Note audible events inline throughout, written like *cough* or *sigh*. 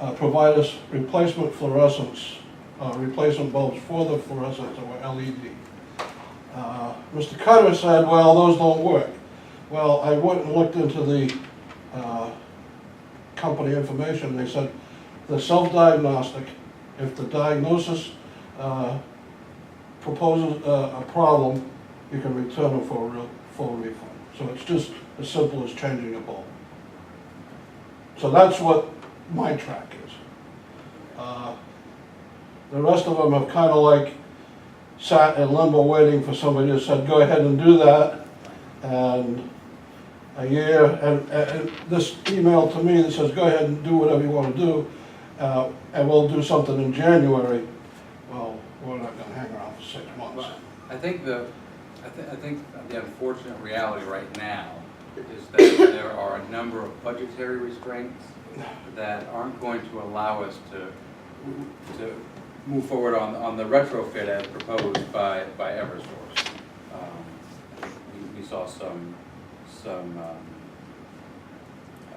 uh, provide us replacement fluorescents, uh, replacement bulbs for the fluorescents that were LED. Uh, Mr. Cutter said, well, those don't work. Well, I went and looked into the uh, company information, they said the self-diagnostic, if the diagnosis uh, proposes uh, a a problem, you can return it for a real- full refund. So it's just as simple as changing a bulb. So that's what my track is. Uh, The rest of them have kind of like sat in limbo waiting for somebody to said, go ahead and do that. And a year, and, and this email to me that says, go ahead and do whatever you want to do, uh, and we'll do something in January. Well, we're not gonna hang around for six months. Well, I think the, I think, I think the unfortunate reality right now is that there are a number of budgetary restraints that aren't going to allow us to, to move forward on, on the retrofit as proposed by, by Eversource. Um, I think we- We saw some, some, um, uh,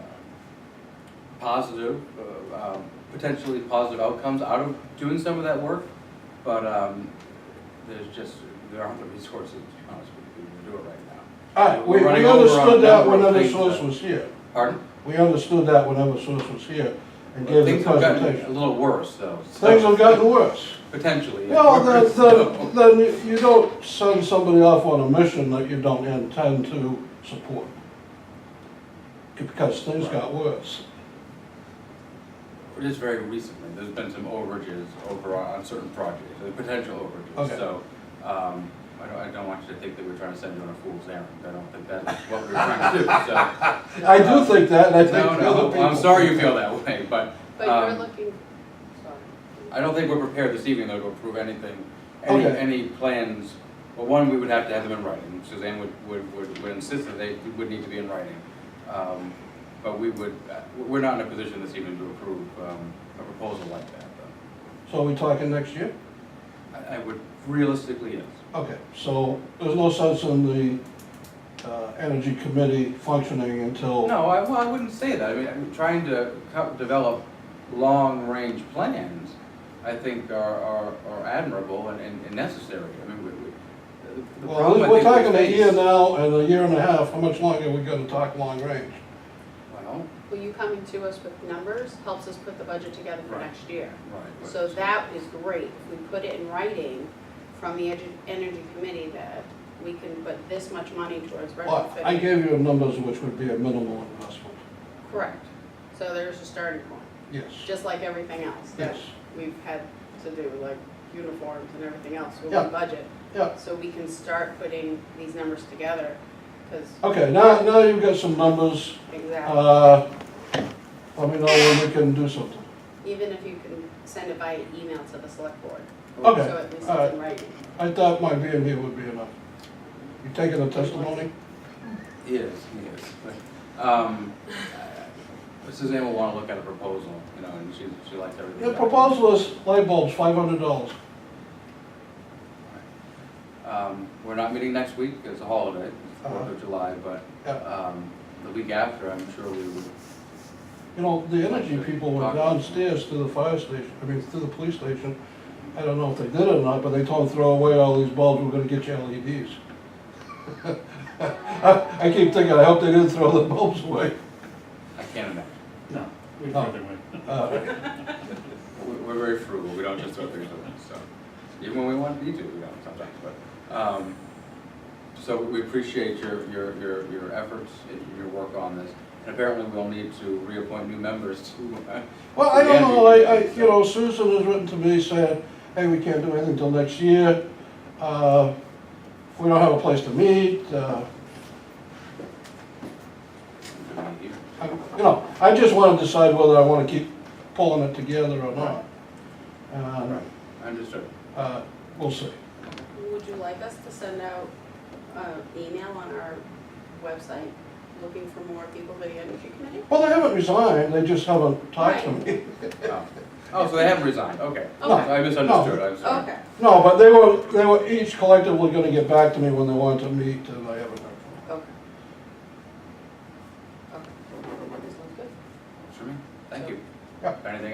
positive, uh, um, potentially positive outcomes out of doing some of that work, but um, there's just, there aren't the resources, to be honest with you, to do it right now. All right, we We're running we over on understood a that number when of other things source that- was here. Pardon? We understood that when other source was here and gave the Things have gotten a presentation. little worse, though. so- Things have gotten worse. Potentially. yeah. Well, *laughs* then, So- then, then you- you don't send somebody off on a mission that you don't intend to support. Because things got worse. Just very recently, there's been some overages over on on certain projects, uh, potential Okay. overages, so, um, I don't, I don't want you to think that we're trying to send you on a fool's errand, I don't think that's what we're trying to do, so. I do think that, and I think No, the other no, people. I'm sorry you feel that way, but, But you're um, looking, I sorry. don't think we're prepared this evening though to approve anything, any, Okay. any plans. Well, one, we would have to have them in writing, Suzanne would, would, would, would insist that they would need to be in writing. Um, but we would, uh, we're not in a position this evening to approve, um, a proposal like that, though. So are we talking next year? I, I would realistically, yes. Okay, so there's no sense in the, uh, energy committee functioning until. No, I, well, I wouldn't say that. I mean, I'm trying to co- develop long-range plans, I think are, are, are admirable and, and and necessary. I mean, we, we. the- the Well, problem I we're think we talking a face- year now and a year and a half, how much longer are we gonna talk long range? Well, Well, you coming to us with numbers helps us put the budget together for Right. next year. right. but- So that is great. If we put it in writing from the edu- Energy Committee that we can put this much money towards Well, I retrofitting. gave you numbers which would be a minimal investment, Correct. So there's a starting point, yes. just like everything else that Yes. we've had to do, like uniforms and everything else with Yeah. the budget. Yeah. So we can start putting these numbers together, because Okay, now, now you've got some numbers, exactly. uh, let me know when we can do something. Even if you can send it by email to the select board. Oh, Okay, So at least it's alright. in writing. I thought my being here would be enough. You taking a testimony? Yes, yes. But, Um, uh, Suzanne will wanna look at a proposal, you know, and she, she liked everything. The about it. proposal is light bulbs, five hundred dollars. Um, we're not meeting next week, it's a holiday, it's the Fourth Uh-huh. of July, but, Yeah, um, the week after, I'm sure we would you know, the energy people went downstairs to the fire station, I mean, to the police station. I don't know if they did it or not, but they told them throw away all these bulbs, we're gonna get you LEDs. *laughs* I, I keep thinking, I hope they didn't throw the bulbs away. I can't imagine. No. We'd Oh. rather win. Uh, We're, we're very frugal, we don't just throw things away, so, even when we want to do, we don't sometimes, but, um, so we appreciate your, your, your, your efforts and your work on this. And apparently we'll need to reappoint new members to, uh, Well, I don't know, I, I, you know, Susan has written to me saying, hey, we can't do anything until next year. Uh, We don't have a place to meet, uh, I- you know, I just wanna decide whether I wanna keep pulling it together or not. And, Understood. uh, we'll see. Would you like us to send out an email on our website looking for more people for the Energy Committee? Well, they haven't resigned, they just haven't talked to me. Oh, Oh, so they haven't resigned, okay. No. I misunderstood, I'm sorry. Okay, *laughs* No, but they were, they were each collectively gonna get back to me when they wanted to meet, and I haven't heard from them. okay. Okay. This one's good. Sure, Thank you. Yeah. Anything